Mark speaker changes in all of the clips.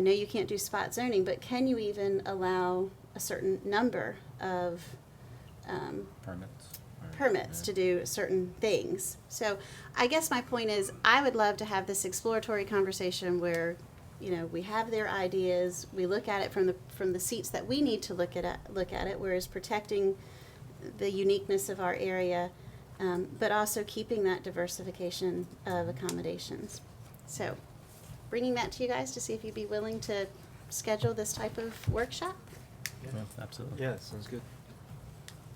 Speaker 1: know you can't do spot zoning, but can you even allow a certain number of um,
Speaker 2: Permits. or-
Speaker 1: permits to do certain things? So I guess my point is, I would love to have this exploratory conversation where, you know, we have their ideas, we look at it from the, from the seats that we need to look at, it- look at it, whereas protecting the uniqueness of our area, um, but also keeping that diversification of accommodations. So, bringing that to you guys to see if you'd be willing to schedule this type of workshop.
Speaker 2: Yeah, Absolutely.
Speaker 3: Yeah, sounds good.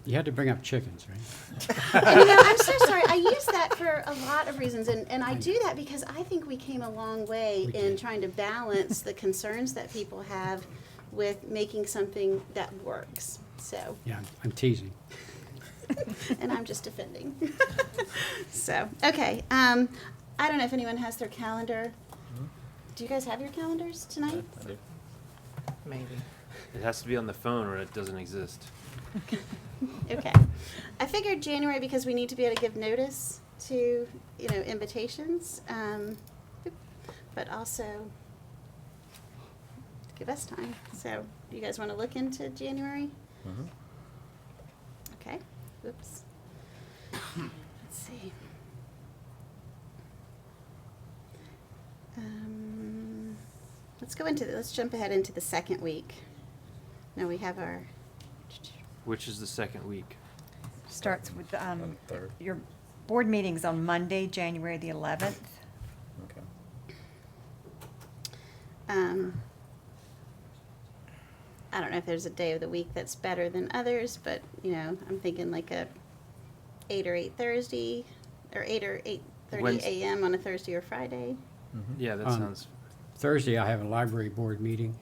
Speaker 4: You had to bring up chickens, right?
Speaker 1: And, you know, I'm so sorry. I use that for a lot of reasons, and, and I do that because I think we came a long way
Speaker 4: We
Speaker 1: in
Speaker 4: did.
Speaker 1: trying to balance the concerns that people have with making something that works. So,
Speaker 4: Yeah, I'm- I'm teasing.
Speaker 1: and I'm just defending. so, okay. Um, I don't know if anyone has their calendar.
Speaker 2: Mm-hmm.
Speaker 1: Do you guys have your calendars tonight?
Speaker 5: Maybe.
Speaker 3: It has to be on the phone or it doesn't exist.
Speaker 1: Okay. I figured January because we need to be able to give notice to, you know, invitations, um, but also give us time. So, you guys want to look into January?
Speaker 2: Mhm.
Speaker 1: Okay. Oops. Let's see. Um, let's go into the, let's jump ahead into the second week. Now we have our.
Speaker 3: Which is the second week.
Speaker 5: Starts with, um,
Speaker 2: On the third.
Speaker 5: your board meeting's on Monday, January the eleventh.
Speaker 2: Okay.
Speaker 1: Um, I don't know if there's a day of the week that's better than others, but you know, I'm thinking like a eight or eight Thursday, or eight or eight thirty
Speaker 3: Wednes-
Speaker 1: a.m. on a Thursday or Friday.
Speaker 2: Mhm.
Speaker 3: Yeah, that
Speaker 4: Um,
Speaker 3: sounds,
Speaker 4: Thursday, I have a library board meeting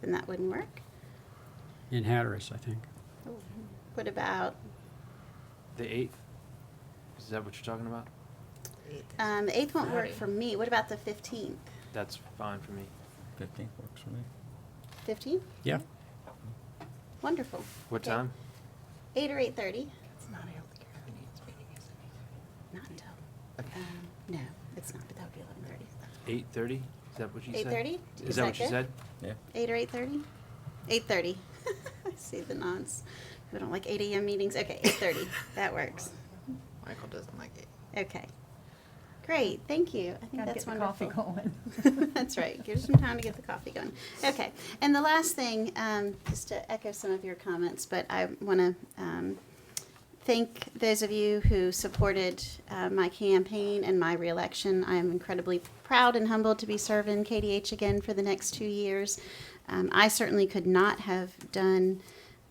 Speaker 1: Then that wouldn't work.
Speaker 4: in Hatteras, I think.
Speaker 1: What about
Speaker 3: the eighth? Is that what you're talking about?
Speaker 1: um, the eighth? Won't work
Speaker 5: Friday.
Speaker 1: for me. What about the fifteenth?
Speaker 3: That's fine for me.
Speaker 2: Fifteenth works for me.
Speaker 1: Fifteenth?
Speaker 4: Yeah,
Speaker 1: Wonderful.
Speaker 3: What
Speaker 1: Okay.
Speaker 3: time?
Speaker 1: Eight or eight thirty. Not until. Um, no, it's not. But that would be eleven thirty.
Speaker 3: Eight thirty? Is that what you said?
Speaker 1: 8:30? Is
Speaker 3: Is that
Speaker 1: that
Speaker 3: what you
Speaker 1: good?
Speaker 3: said?
Speaker 2: Yeah.
Speaker 1: Eight or eight thirty? Eight thirty. I see the nods. We don't like eight AM meetings. Okay, eight thirty. That works.
Speaker 6: Michael doesn't like it.
Speaker 1: Okay. Great, thank you. I think
Speaker 5: Gotta
Speaker 1: that's
Speaker 5: get the coffee
Speaker 1: wonderful.
Speaker 5: going.
Speaker 1: That's right. Give us some time to get the coffee going. Okay. And the last thing, um, just to echo some of your comments, but I want to um, thank those of you who supported uh, my campaign and my reelection. I am incredibly proud and humbled to be serving KDH again for the next two years. Um, I certainly could not have done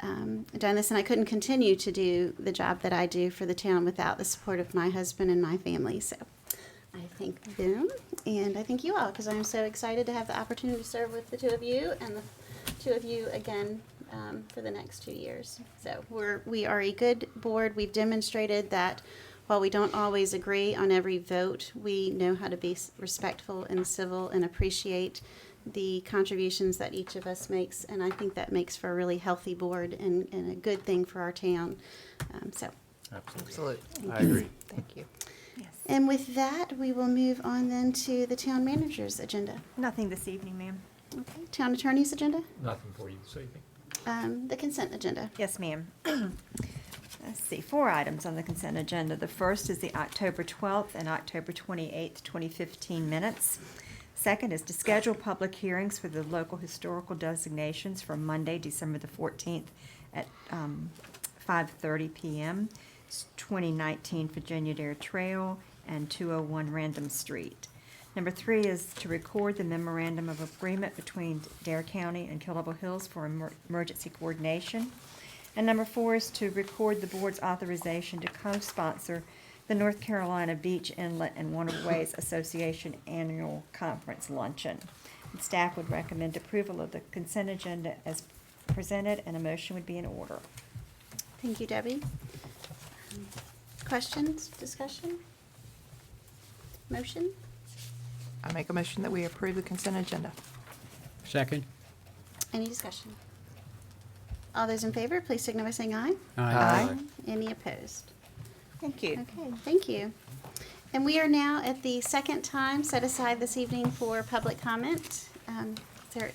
Speaker 1: um, done this, and I couldn't continue to do the job that I do for the town without the support of my husband and my family. So. I thank them, and I thank you all, because I'm so excited to have the opportunity to serve with the two of you and the two of you again um, for the next two years. So we're we are a good board. We've demonstrated that while we don't always agree on every vote, we know how to be s- respectful and civil and appreciate the contributions that each of us makes, and I think that makes for a really healthy board and, and a good thing for our town. Um, so
Speaker 2: Absolutely.
Speaker 6: Absolutely.
Speaker 3: I agree.
Speaker 6: Thank you.
Speaker 5: Yes.
Speaker 1: and with that, we will move on then to the town manager's agenda.
Speaker 5: Nothing this evening, ma'am.
Speaker 1: Okay, town attorney's agenda,
Speaker 7: Nothing for you this evening.
Speaker 1: um, the consent agenda.
Speaker 5: Yes, ma'am. Let's see, four items on the consent agenda. The first is the October 12th and October 28th, 2015 minutes. Second is to schedule public hearings for the local historical designations for Monday, December the 14th at um, 5:30 PM, It's 2019 Virginia Dare Trail and 201 Random Street. Number three is to record the memorandum of agreement between Dare County and Killable Hills for emer- emergency coordination. And number four is to record the board's authorization to co-sponsor the North Carolina Beach Inlet and Waterways Association Annual Conference Luncheon. And Staff would recommend approval of the consent agenda as presented, and a motion would be in order.
Speaker 1: Thank you, Debbie. Questions, discussion? Motion?
Speaker 6: I make a motion that we approve the consent agenda.
Speaker 4: second?
Speaker 1: Any discussion? All those in favor, please signal by saying aye.
Speaker 6: Aye.
Speaker 1: Any opposed?
Speaker 5: Thank you.
Speaker 1: Okay, thank you. And we are now at the second time set aside this evening for public comment. Um, Is there